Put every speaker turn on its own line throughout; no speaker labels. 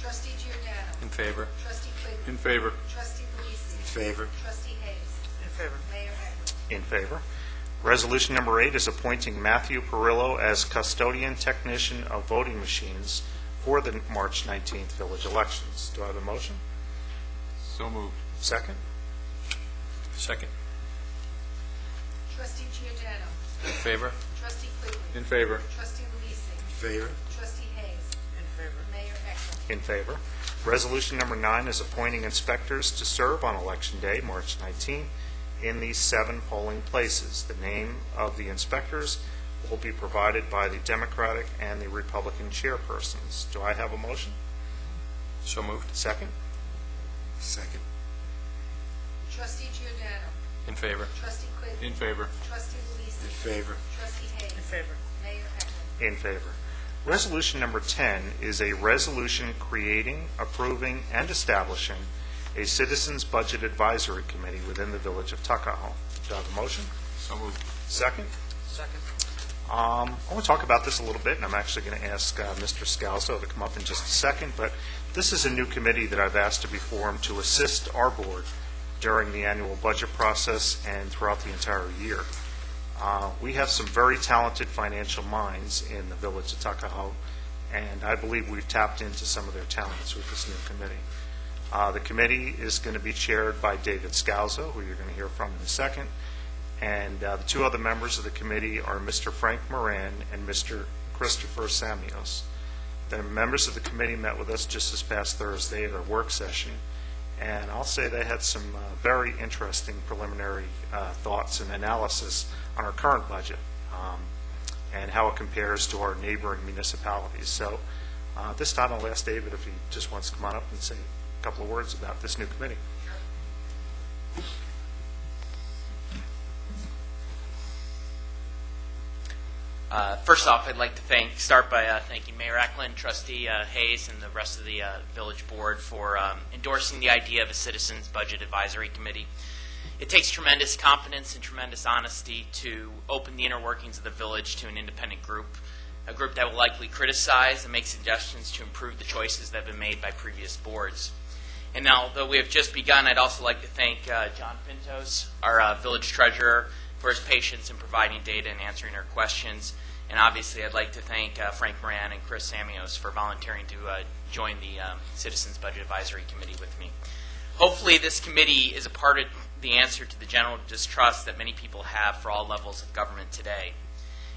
Trustee Giordano.
In favor.
Trustee Quigley.
In favor.
Trustee Luise. In
favor.
Trustee Hayes.
In favor.
Mayor Eklund.
In favor. Resolution number eight is appointing Matthew Perillo as custodian technician of voting machines for the March 19th village elections. Do I have a motion?
So moved.
Second?
Second.
Trustee Giordano.
In favor.
Trustee Quigley.
In favor.
Trustee Luise.
Favor.
Trustee Hayes.
In favor.
Mayor Eklund.
In favor. Resolution number nine is appointing inspectors to serve on Election Day, March 19th, in these seven polling places. The name of the inspectors will be provided by the Democratic and the Republican chairpersons. Do I have a motion?
So moved.
Second?
Second.
Trustee Giordano.
In favor.
Trustee Quigley.
favor.
Trustee
In
Luise.
favor.
Trustee Hayes.
In favor.
Mayor Eklund.
In favor. Resolution number 10 is a resolution creating, approving, and establishing a Citizens Budget Advisory Committee within the Village of Tuckahoe. Do I have a motion?
So moved.
Second?
Second.
Um, I want to talk about this a little bit, and I'm actually going to ask uh, Mr. Scalzo to come up in just a second, but this is a new committee that I've asked to be formed to assist our board during the annual budget process and throughout the entire year. Uh, We have some very talented financial minds in the village of Tuckahoe, and I believe we've tapped into some of their talents with this new committee. Uh, The committee is going to be chaired by David Scalzo, who you're going to hear from in a second, and uh, the two other members of the committee are Mr. Frank Moran and Mr. Christopher Samios. The members of the committee met with us just this past Thursday at our work session, and I'll say they had some uh, very interesting preliminary uh, thoughts and analysis on our current budget um, and how it compares to our neighboring municipalities. So uh, this time I'll ask David if he just wants to come on up and say a couple of words about this new committee.
Uh, First off, I'd like to thank, start by uh, thanking Mayor Eklund, Trustee uh, Hayes, and the rest of the uh, village board for um, endorsing the idea of a Citizens Budget Advisory Committee. It takes tremendous confidence and tremendous honesty to open the inner workings of the village to an independent group, a group that will likely criticize and make suggestions to improve the choices that have been made by previous boards. And now, though we have just begun, I'd also like to thank uh, John Pintos, our uh, village treasurer, for his patience in providing data and answering our questions. And obviously, I'd like to thank uh, Frank Moran and Chris Samios for volunteering to uh, join the um, Citizens Budget Advisory Committee with me. Hopefully, this committee is a part of the answer to the general distrust that many people have for all levels of government today.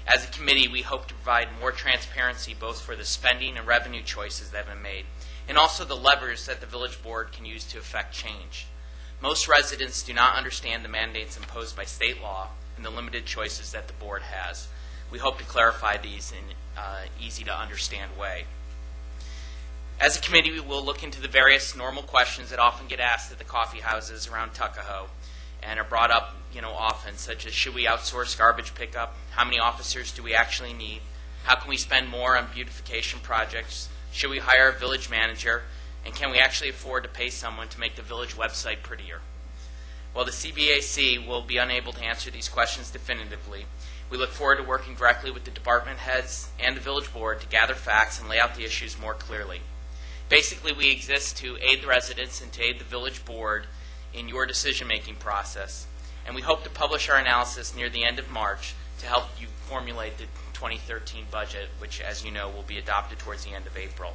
As a committee, we hope to provide more transparency both for the spending and revenue choices that have been made, and also the levers that the village board can use to affect change. Most residents do not understand the mandates imposed by state law and the limited choices that the board has. We hope to clarify these in uh, an easy-to-understand way. As a committee, we will look into the various normal questions that often get asked at the coffee houses around Tuckahoe and are brought up, you know, often, such as should we outsource garbage pickup? How many officers do we actually need? How can we spend more on beautification projects? Should we hire a village manager? And can we actually afford to pay someone to make the village website prettier? While the CBAC will be unable to answer these questions definitively, we look forward to working directly with the department heads and the village board to gather facts and lay out the issues more clearly. Basically, we exist to aid the residents and to aid the village board in your decision-making process, and we hope to publish our analysis near the end of March to help you formulate the 2013 budget, which, as you know, will be adopted towards the end of April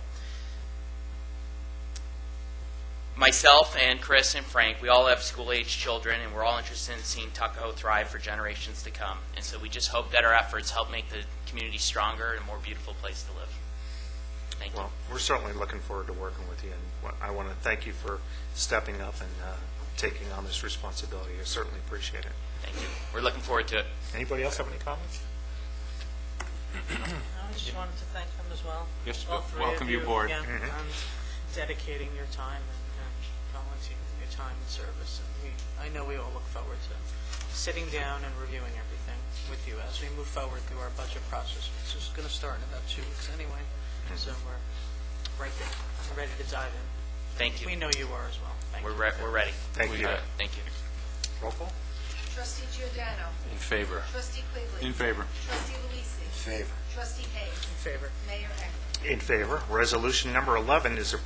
myself and Chris and Frank, we all have school-aged children, and we're all interested in seeing Tuckahoe thrive for generations to come. And so we just hope that our efforts help make the community stronger and a more beautiful place to live. Thank you.
Well, we're certainly looking forward to working with you, and I want to thank you for stepping up and uh, taking on this responsibility. I certainly appreciate it.
Thank you. We're looking forward to it.
Anybody else have any comments?
I just wanted to thank them as well.
Yes,
All
wel-
three of
welcome you aboard.
Yeah,
Mhm.
um, dedicating your time and and volunteering your time and service. And we, I know we all look forward to sitting down and reviewing everything with you as we move forward through our budget process, which is going to start in about two weeks anyway. So we're right there, ready to dive in.
Thank
We
you.
know you are as well. Thank
We're,
you.
re- we're ready.
Thank you.
Uh, Thank you.
Roll call?
Trustee Giordano.
In favor.
Trustee Quigley.
favor.
Trustee Luise.
Favor.
Trustee Hayes.
In favor.
Mayor Eklund.
In favor. Resolution number 11 is approved